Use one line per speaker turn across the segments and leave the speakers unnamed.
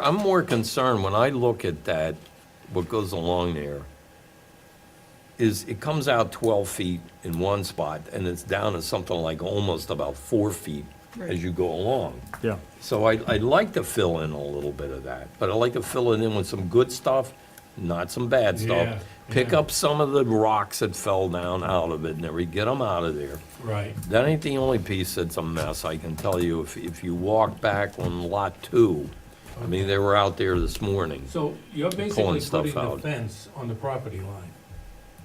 I'm more concerned when I look at that, what goes along there, is it comes out 12 feet in one spot, and it's down to something like almost about four feet
Right.
as you go along.
Yeah,
So I, I'd like to fill in a little bit of that, but I'd like to fill it in with some good stuff, not some bad
Yeah,
stuff. Pick
yeah.
up some of the rocks that fell down out of it and everything, get them out of there.
Right,
That ain't the only piece that's a mess, I can tell you. If, if you walk back on lot two, I mean, they were out there this morning.
so you're
Pulling
basically
stuff
putting the
out.
fence on the property line.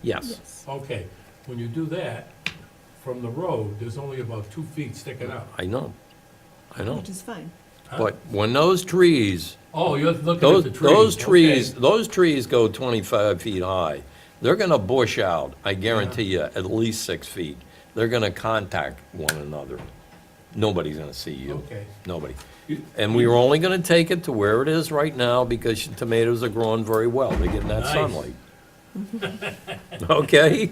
Yes,
Okay, when you do that, from the road, there's only about two feet sticking out.
I know, I know.
Which is fine.
huh?
But when those trees,
Oh, you're looking at
those,
the trees.
those
okay.
trees, those trees go twenty-five feet high, they're gonna bush out, I guarantee you, at least six feet. They're gonna contact one another. Nobody's gonna see you.
Okay.
Nobody.
You-
And we were only gonna take it to where it is right now because your tomatoes are growing very well. They're getting that
Nice.
sunlight. Okay?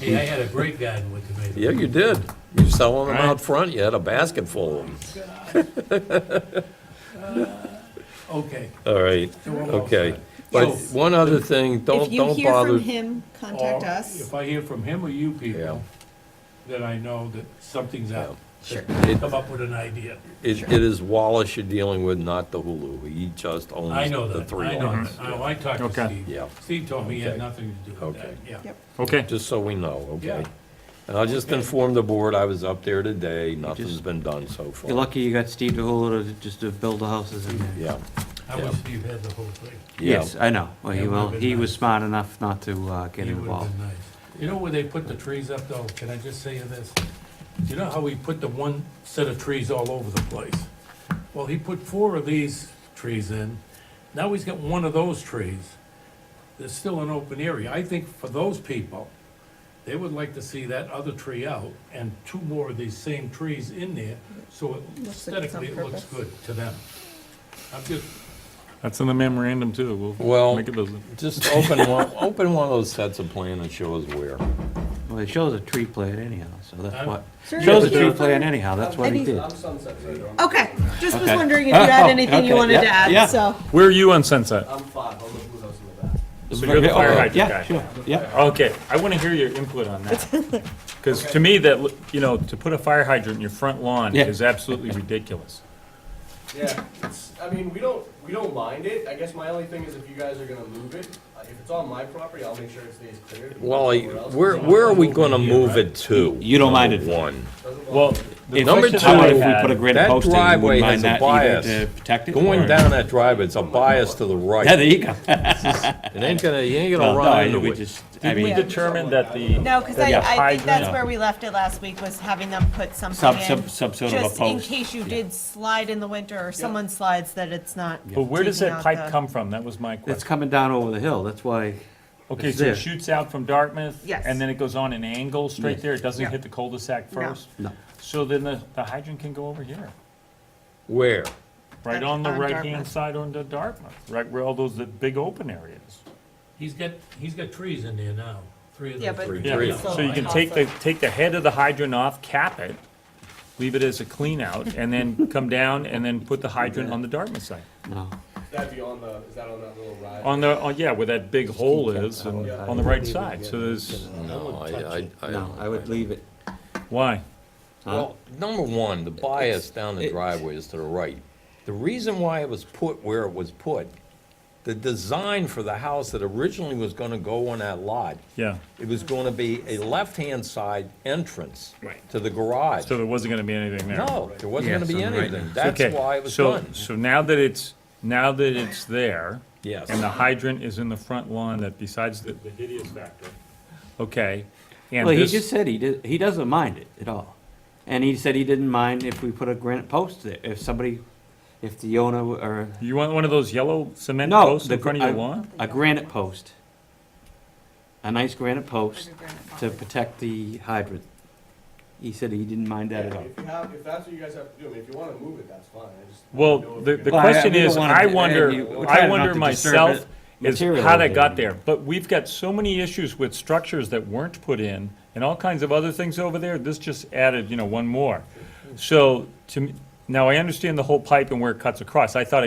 Hey, I had a great garden with tomatoes.
Yeah, you did. You selling them
Right.
out front. You had a basket full of them.
Okay,
All right,
So we're all
okay.
set.
But
So-
one other thing, don't,
If
don't
you hear from
bother.
him,
or
Oh,
contact us.
if I hear from him or you
Yeah.
people, then I know that something's out.
Sure.
It-
Come up with an idea.
It, it is Wallace you're dealing with, not the Hulu. He just
I
owns
know
the
that,
three
I know
lots.
that. Oh, I talked to
Okay.
Steve.
Yeah.
Steve told me he had
Okay.
nothing to do with that,
Okay.
yeah.
Yep.
okay.
Just so we know, okay?
Yeah.
And I'll just
Okay.
inform the board, I was up there today, nothing's
just-
been done so
You're
far.
lucky you got Steve DeHulu to, just to build the houses in there.
Yeah,
I
Yeah.
wish Steve had the whole thing.
yeah,
Yes, I know, well,
Yeah,
he
it
will,
would've been
he was
nice.
smart enough not to, uh, get
It would've
involved.
been nice. You know where they put the trees up though? Can I just say this? You know how we put the one set of trees all over the place? Well, he put four of these trees in. Now he's got one of those trees. There's still an open area. I think for those people, they would like to see that other tree out and two more of these same trees in there, so it-
Looks like it's on
aesthetically it looks
purpose.
good to them. I'm just,
That's in the memorandum too.
Well-
We'll make it visible.
just open one, open one of those sets of plan and show us where.
Well, it shows a tree plan anyhow, so that's
I'm-
what,
Sure,
shows a
yeah.
tree plan anyhow, that's what he
Any-
did.
Sunset Trader, I'm,
Okay, just was
Okay.
wondering if you had
Oh,
anything you
okay,
wanted to
yeah, yeah.
add, so.
Where are you on Sunset?
I'm five, I'll look who those in the back.
So you're the
Oh,
fire hydrant
Yeah,
guy.
sure, yeah.
Okay, I want to hear your input on that. Because to me, that, lo- you know, to put a fire hydrant in your front lawn
Yeah.
is absolutely ridiculous.
Yeah, it's, I mean, we don't, we don't mind it, I guess my only thing is if you guys are gonna move it, uh, if it's on my property, I'll make sure it stays clear.
Wally, where, where are we gonna move it to?
You don't mind
Number
it.
One.
Well, the
Number
question
How
I
about
two,
if we
had-
put a grid
that
post in, you
driveway has
wouldn't mind
a
that either
bias.
to protect it?
Going
or-
down that drive, it's a bias to the right.
Yeah, there you go.
It ain't gonna, you ain't gonna
Well, no,
run into
we
it.
just, I
Did we
mean,
determine that the,
No, because I,
Yeah.
I think that's
Hydrant.
where we left it last week, was having them put something
Some-
in.
some- some sort of a
Just in
post.
case you did slide in the winter, or someone slides, that it's not.
but where does
taking
that
out the-
pipe come from? That was my
it's
question.
coming down over the hill, that's why,
Okay,
it's
so
there.
it shoots out from Dartmouth?
Yes.
And then it goes on an angle straight
Yes.
there? It doesn't
Yeah.
hit the cul-de-sac
No.
first?
no.
So then the, the hydrant can go over here,
Where?
right
That's
on the
on
right-hand
Dartmouth.
side on the Dartmouth, right where all those, that big open areas.
he's got, he's got trees in there now, three of
Yeah,
them.
but.
trees.
Yeah,
Yeah,
so
so you can take the, take the head of the hydrant off, cap it, leave it as a clean out, and then come down and then put the hydrant on the Dartmouth side.
No.
That'd be on the, is that on that little ride?
On the, oh, yeah, where that big hole is, and
Yeah.
on the right side, so there's,
No, I, I, I.
No, I would leave it.
why?
Well, number one, the bias down the driveway is to the right. The reason why it was put where it was put, the design for the house that originally was gonna go on that lot,
Yeah,
it was gonna be a left-hand side entrance
Right.
to the garage.
so there wasn't gonna be anything there.
No, there wasn't
Yeah,
gonna be
so right.
anything. That's
Okay,
why it was
so-
done.
So now that it's, now that it's there.
Yes.
And the hydrant is in the front lawn, that besides the the hideous factor, okay, and
Well, he
this.
just said he did, he doesn't mind it at all. And he said he didn't mind if we put a granite post there, if somebody, if the owner w- or,
You want one of those yellow cement
no.
posts in
the
front of
gr-
your
a-
lawn?
A granite post. A nice granite post to protect the hydrant. He said he didn't mind that at all.
If you have, if that's what you guys have to do, I mean, if you wanna move it, that's fine, I just.
Well, the, the
Well, I-
question
we don't
is,
wanna-
I
and you-
wonder,
we're
I
trying not
wonder
to disturb
myself,
it
is
materially.
how that got there. But we've got so many issues with structures that weren't put in and all kinds of other things over there. This just added, you know, one more. So to, me- Now, I understand the whole pipe and where it cuts across. I thought